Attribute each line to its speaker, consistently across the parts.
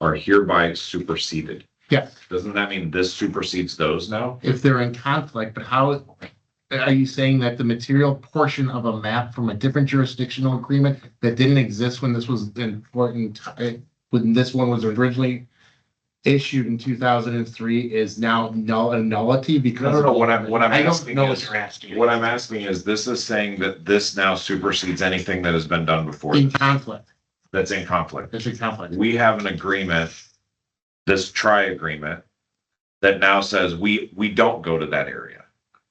Speaker 1: are hereby superseded.
Speaker 2: Yeah.
Speaker 1: Doesn't that mean this supersedes those now?
Speaker 2: if they're in conflict, but how, are you saying that the material portion of a map from a different jurisdictional agreement that didn't exist when this was important, when this one was originally issued in two thousand and three is now null, a nullity because.
Speaker 1: No, no, no, what I'm, what I'm
Speaker 2: I don't
Speaker 1: asking
Speaker 2: know
Speaker 1: is,
Speaker 2: what you're asking.
Speaker 1: what I'm asking is, this is saying that this now supersedes anything that has been done before
Speaker 2: In conflict,
Speaker 1: that's in conflict.
Speaker 2: there's a conflict.
Speaker 1: We have an agreement, this tri agreement, that now says we, we don't go to that area.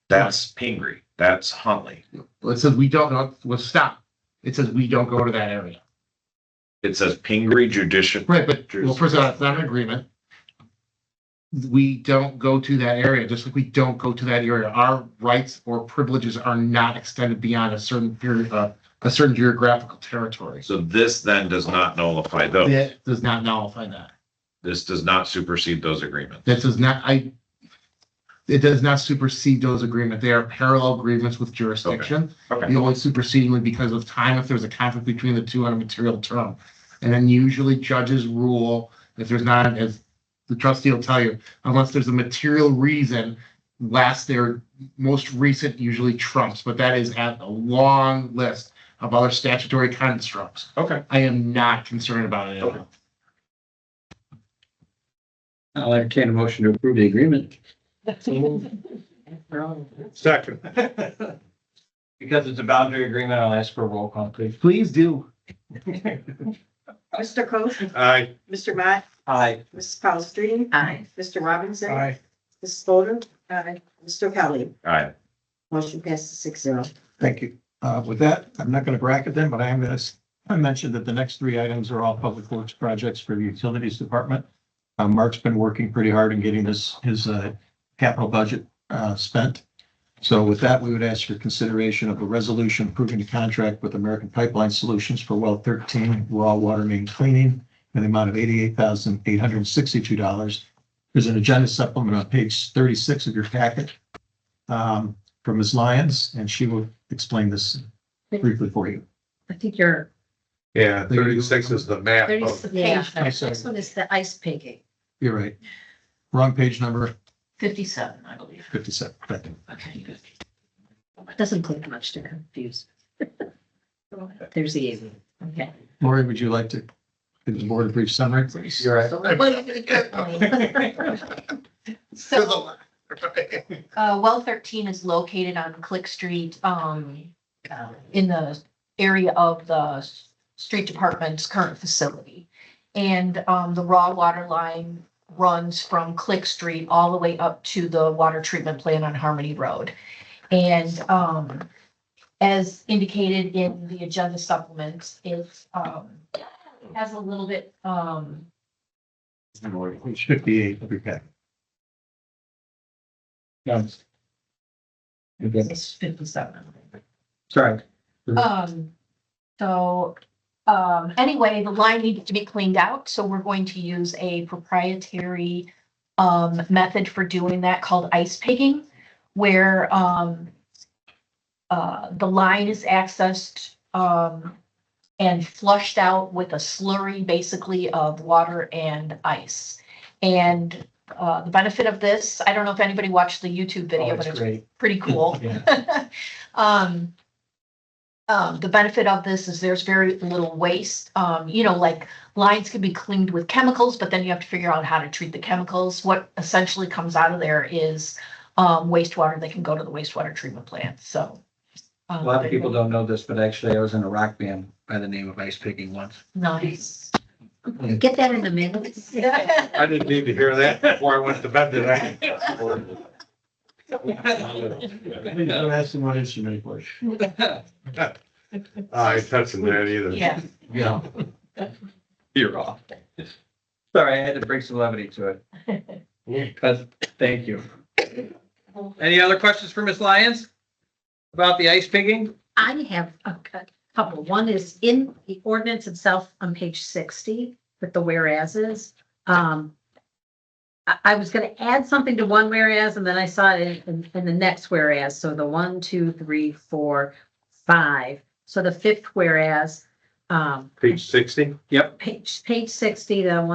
Speaker 1: That's Pingree, that's Huntley.
Speaker 2: It says we don't, know- well, stop. It says we don't go to that area.
Speaker 1: It says Pingree judicial,
Speaker 2: Right, but, well, first of all, it's not an agreement. We don't go to that area, just like we don't go to that area. Our rights or privileges are not extended beyond a certain period, uh, a certain geographical territory.
Speaker 1: so this then does not nullify those.
Speaker 2: That does not nullify that.
Speaker 1: This does not supersede those agreements.
Speaker 2: That does not, I, it does not supersede those agreements. They are parallel agreements with jurisdiction.
Speaker 1: Okay,
Speaker 2: The only superseding would be because of time if there's a conflict between the two on a material term. And then usually judges rule if there's not, as the trustee will tell you, unless there's a material reason, last their most recent usually trumps, but that is at a long list of other statutory constructs.
Speaker 1: okay.
Speaker 2: I am not concerned about it. at all.
Speaker 3: I'll entertain a motion to approve the agreement.
Speaker 1: Second.
Speaker 3: Because it's a boundary agreement, I'll ask for a roll call, please.
Speaker 2: Please do.
Speaker 4: Mr. Coe,
Speaker 1: Aye.
Speaker 4: Mr. Matt,
Speaker 3: Aye.
Speaker 4: Mrs. Palastrellini. Aye. Mr. Robinson. Mrs. Fodor. Aye. Mr. Kelly.
Speaker 1: Aye.
Speaker 4: Motion passes six zero.
Speaker 5: Thank you. Uh, with that, I'm not gonna bracket them, but I am gonna, s- I mentioned that the next three items are all public works projects for the utilities department. Uh, Mark's been working pretty hard in getting his, his, uh, capital budget, uh, spent. So with that, we would ask for consideration of a resolution approving the contract with American Pipeline Solutions for well thirteen raw water main cleaning in the amount of eighty-eight thousand, eight hundred and sixty-two dollars. There's an agenda supplement on page thirty-six of your packet. Um, from Ms. Lyons, and she will explain this briefly for you. Uh,
Speaker 6: I think you're,
Speaker 7: Yeah,
Speaker 5: There you go.
Speaker 7: thirty-six is the map.
Speaker 6: there's
Speaker 7: of-
Speaker 6: the
Speaker 4: Yeah.
Speaker 6: page, number. next one is the ice pigging,
Speaker 5: You're right. Wrong page number
Speaker 6: fifty-seven, I believe.
Speaker 5: fifty-seven. Thank you.
Speaker 6: Okay, good. Doesn't click much to confuse. There's the easy, okay.
Speaker 5: Lori, would you like to give the board a brief summary?
Speaker 3: You're right.
Speaker 6: So, uh, well thirteen is located on Click Street, um, uh, in the area of the s- street department's current facility. And, um, the raw water line runs from Click Street all the way up to the water treatment plant on Harmony Road. And, um, as indicated in the agenda supplements, it's, um, has a little bit, um,
Speaker 5: Page fifty-eight of your packet.
Speaker 3: Yes. Okay,
Speaker 6: it's fifty-seven.
Speaker 3: Sorry. Mm-hmm.
Speaker 6: Um, so, um, anyway, the line needed to be cleaned out, so we're going to use a proprietary um, method for doing that called ice pigging, where um, uh, the line is accessed um, and flushed out with a slurry basically of water and ice. And uh, the benefit of this, I don't know if anybody watched the YouTube
Speaker 3: Oh,
Speaker 6: video, but
Speaker 3: it's
Speaker 6: it's
Speaker 3: great.
Speaker 6: pretty cool.
Speaker 3: Yeah.
Speaker 6: Um, um, the benefit of this is there's very little waste. Um, you know, like lines can be cleaned with chemicals, but then you have to figure out how to treat the chemicals. What essentially comes out of there is um, wastewater that can go to the wastewater treatment plant. So. um,
Speaker 3: A lot of people don't know this, but actually I was in a rock band by the name of Ice Picking once.
Speaker 6: Nice.
Speaker 4: Get that in the minutes.
Speaker 7: I didn't need to hear that before I went to bed tonight.
Speaker 5: Don't ask them what instrument it was.
Speaker 7: I ain't Oh, touching that either.
Speaker 6: Yeah.
Speaker 5: Yeah.
Speaker 3: You're off. Sorry, I had to bring some levity to it. But thank you. Any other questions for Ms. Lyons? About the ice picking?
Speaker 8: I have a cou- couple. One is in the ordinance itself on page sixty with the whereases. Um, I, I was gonna add something to one whereas and then I saw it in, in the next whereas. So the one, two, three, four, five. So the fifth whereas, um,
Speaker 7: Page sixty?
Speaker 3: Yep.
Speaker 8: page, page sixty, the one.